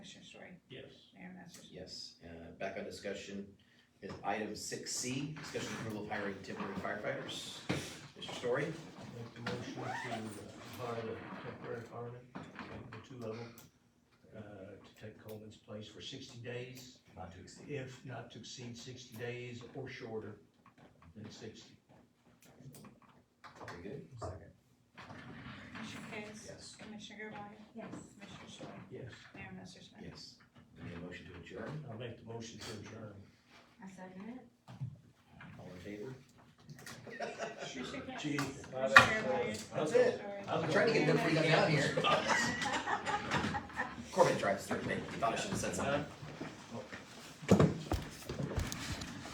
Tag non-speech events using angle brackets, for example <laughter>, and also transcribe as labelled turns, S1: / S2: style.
S1: passed, yes. Uh, back on discussion is item six C, discussion approval of hiring temporary firefighters. Mr. Story,
S2: Make the motion to uh, hire the temporary fireman, the two of them, uh, to take Coleman's place for sixty days,
S1: not to exceed.
S2: if not to exceed sixty days or shorter than sixty.
S1: Very good. Second.
S3: Commissioner Case?
S1: Yes.
S3: Commissioner Gervail?
S4: yes,
S3: Commissioner Story?
S2: Yes.
S3: Mayor Massersohn?
S1: Yes. Any motion to adjourn?
S2: I'll make the motion to adjourn.
S4: I second it.
S1: All in favor?
S3: Commissioner Case?
S2: Gee,
S3: Commissioner Gervail?
S1: That's it.
S3: Story?
S2: I'm
S1: I'm trying to get <laughs> them freaked out down here.
S2: Thoughts?
S1: Corbin drives through, he thought I should have said something.